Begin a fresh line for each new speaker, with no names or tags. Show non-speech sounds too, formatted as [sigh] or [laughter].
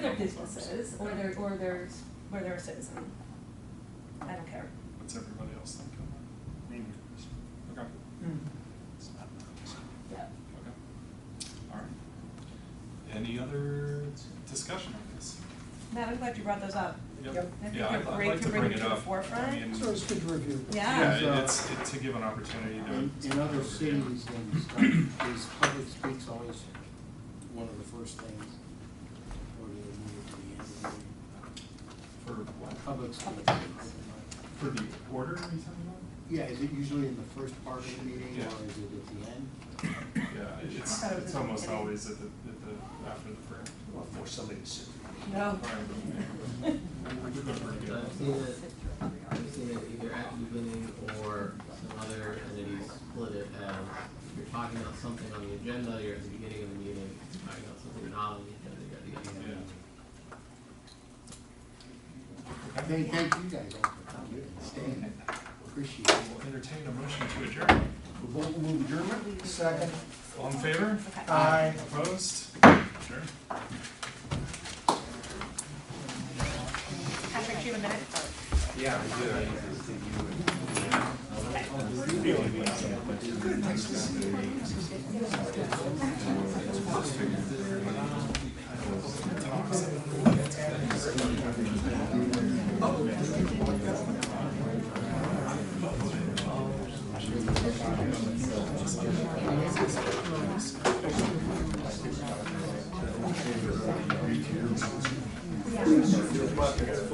their businesses or their, or their, or their citizen. I don't care.
What's everybody else think on that? Me Okay. It's
Hmm.
not mine.
Yeah.
Okay. All right. Any other discussion on this?
Matt, I'm glad you brought those up.
Yep.
I think
Yeah,
they're
I'd- I'd
great
like
to bring it to the
up. I
forefront.
mean,
So it's good to review.
Yeah.
Yeah, it's, it- to give an opportunity
In,
to.
in other cities and stuff, is public speaks always one of the first things, or do they move it to the end of the meeting?
For what?
Public
Public
speaks.
speaks.
For the order, are you
[coughs]
talking
Yeah, is it usually in the first part of the meeting,
Yeah.
or is it at the end?
about? Yeah, it's,
Oh,
it's almost
okay.
always at the, at the, after the prayer.
Well, for somebody to sit.
No.
[laughs]
[laughs]
I've seen it, I've seen it either at the beginning or some other entities split it as you're talking about something on the agenda, you're at the beginning of the meeting, you're talking about something not on the agenda, you're at the beginning of the meeting.
Hey, thank you guys all for coming and staying, appreciate it.
We'll entertain a motion to adjourn.
Move adjournment, second.
All in favor?
Okay.
Aye.
Opposed? Sure.
Patrick, do you have a minute?
Yeah, I do.